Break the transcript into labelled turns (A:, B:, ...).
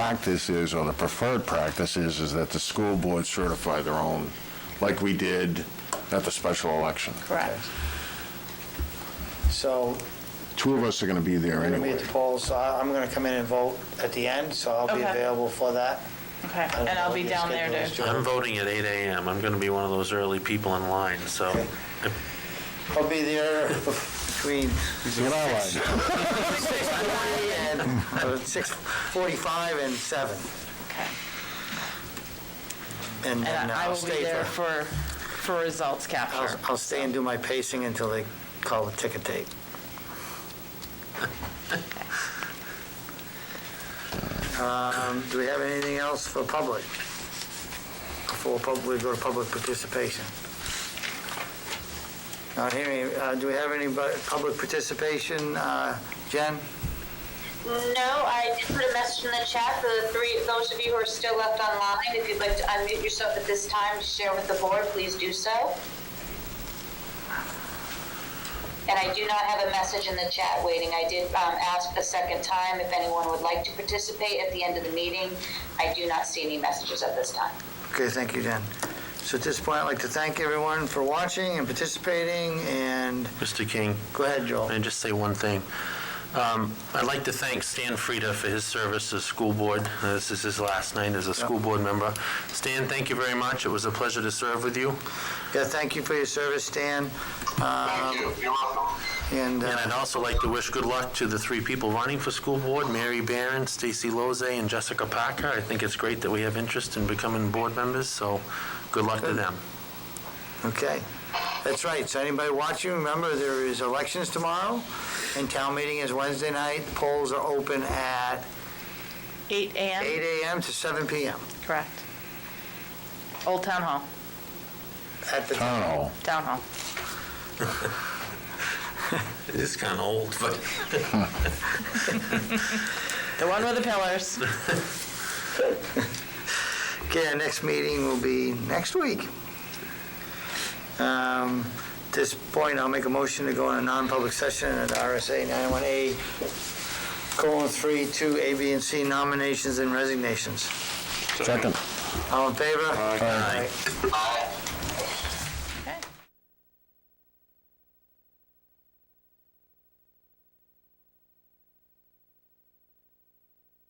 A: practice is, or the preferred practice is, is that the school board certify their own, like we did at the special election.
B: Correct.
C: So
A: Two of us are gonna be there
C: we're going to be at
A: anyway.
C: the polls, so I- I'm going to come in and vote at the end, so I'll be
B: Okay.
C: available for that.
B: Okay,
C: I don't
B: and I'll
C: know
B: be
C: what
B: down
C: your
B: there
C: schedule is,
B: to,
C: Joe.
D: I'm voting at 8 AM. I'm going to be one of those early people in line, so
C: Okay. I'll be there between
A: Get our line.
C: 6:40 and, uh, 6:45 and 7,
B: okay.
C: and then
B: And I
C: I'll
B: will be
C: stay
B: there
C: for,
B: for, for results capture.
C: I'll I'll stay and do my pacing until they call the ticket tape. Um, Do we have anything else for public? Before pub- we go to public participation? Not hearing, uh, do we have any bu- public participation, uh, Jen?
E: No, I did put a message in the chat for the three, those of you who are still left online. If you'd like to unmute yourself at this time to share with the board, please do so. And I do not have a message in the chat waiting. I did um, ask a second time if anyone would like to participate at the end of the meeting. I do not see any messages at this time.
C: Okay, thank you, Jen. So at this point, I'd like to thank everyone for watching and participating, and
D: Mr. King,
C: go ahead, Joel.
D: and just say one thing. Um, I'd like to thank Stan Frieda for his service as school board. Uh, This is his last night as a school board member. Stan, thank you very much. It was a pleasure to serve with you.
C: Yeah, thank you for your service, Stan. Thank you, you're welcome. And,
D: And I'd
C: uh,
D: also like to wish good luck to the three people running for school board, Mary Barron, Stacy Lozay, and Jessica Parker. I think it's great that we have interest in becoming board members, so good luck to them.
C: okay, that's right, so anybody watching, remember, there is elections tomorrow, and town meeting is Wednesday night, polls are open at
B: 8
C: 8
B: AM,
C: AM to 7 PM
B: correct. Old Town Hall,
C: at the,
A: Town hall.
B: Town Hall.
D: It is kind of old, but...
B: The one with the pillars.
C: okay, our next meeting will be next week. Um, At this point, I'll make a motion to go in a non-public session at RSA 91A, colon, 3, 2, A, B, and C, nominations and resignations.
A: Second.
C: All in favor?
A: Aye.
C: Aye.